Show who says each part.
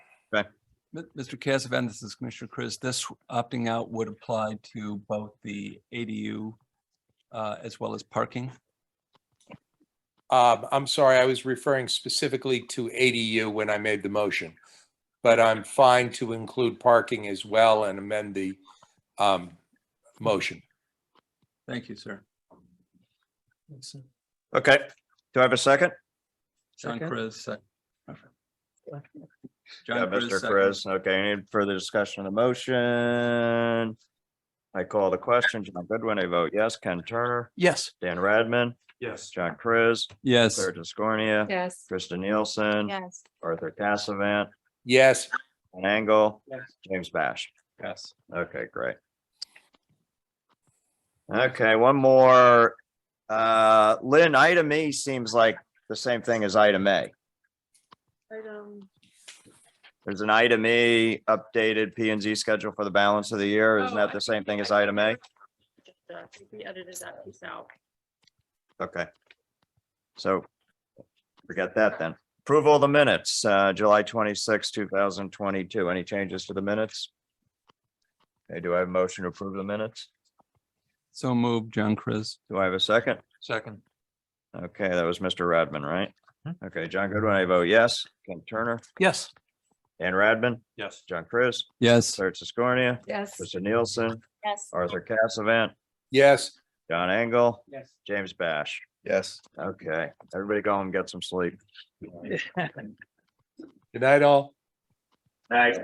Speaker 1: Okay.
Speaker 2: M- Mr. Cassavant, this is Commissioner Chris. This opting out would apply to both the ADU uh, as well as parking.
Speaker 3: Um, I'm sorry, I was referring specifically to ADU when I made the motion. But I'm fine to include parking as well and amend the, um, motion.
Speaker 2: Thank you, sir.
Speaker 1: Okay, do I have a second?
Speaker 2: John
Speaker 4: Second.
Speaker 2: Chris. sec-
Speaker 1: Yeah,
Speaker 2: John uh,
Speaker 1: Mr.
Speaker 2: second.
Speaker 1: Chris, okay, any further discussion on the motion? I call the question, John Goodwin, I vote yes, Ken Turner,
Speaker 2: Yes.
Speaker 1: Dan Radman,
Speaker 3: Yes.
Speaker 1: John Chris,
Speaker 2: Yes.
Speaker 1: Claire Discornia,
Speaker 5: Yes.
Speaker 1: Krista Nielsen,
Speaker 5: Yes.
Speaker 1: Arthur Cassavant,
Speaker 3: Yes,
Speaker 1: Ken Angle,
Speaker 3: Yes.
Speaker 1: James Bash.
Speaker 2: Yes.
Speaker 1: Okay, great. Okay, one more. Uh, Lynn, item E seems like the same thing as item A. There's an item E updated P and Z schedule for the balance of the year. Isn't
Speaker 5: Oh,
Speaker 1: that
Speaker 5: I
Speaker 1: the same thing
Speaker 5: I
Speaker 1: as item A?
Speaker 5: We edited that piece out.
Speaker 1: Okay. So forget that then. Approval of the minutes, uh, July twenty-six, two thousand twenty-two. Any changes to the minutes? Okay, do I have a motion to approve the minutes?
Speaker 2: So moved, John Chris.
Speaker 1: Do I have a second?
Speaker 2: Second.
Speaker 1: Okay, that was Mr. Radman, right? Okay, John Goodwin, I vote yes. Ken Turner,
Speaker 2: Yes.
Speaker 1: Dan Radman,
Speaker 3: Yes.
Speaker 1: John Chris,
Speaker 2: Yes.
Speaker 1: Sarah Siskornia,
Speaker 5: Yes.
Speaker 1: Krista Nielsen,
Speaker 5: Yes.
Speaker 1: Arthur Cassavant,
Speaker 3: yes.
Speaker 1: John Engel,
Speaker 3: Yes.
Speaker 1: James Bash.
Speaker 3: Yes.
Speaker 1: Okay, everybody go home and get some sleep.
Speaker 3: Good night, all.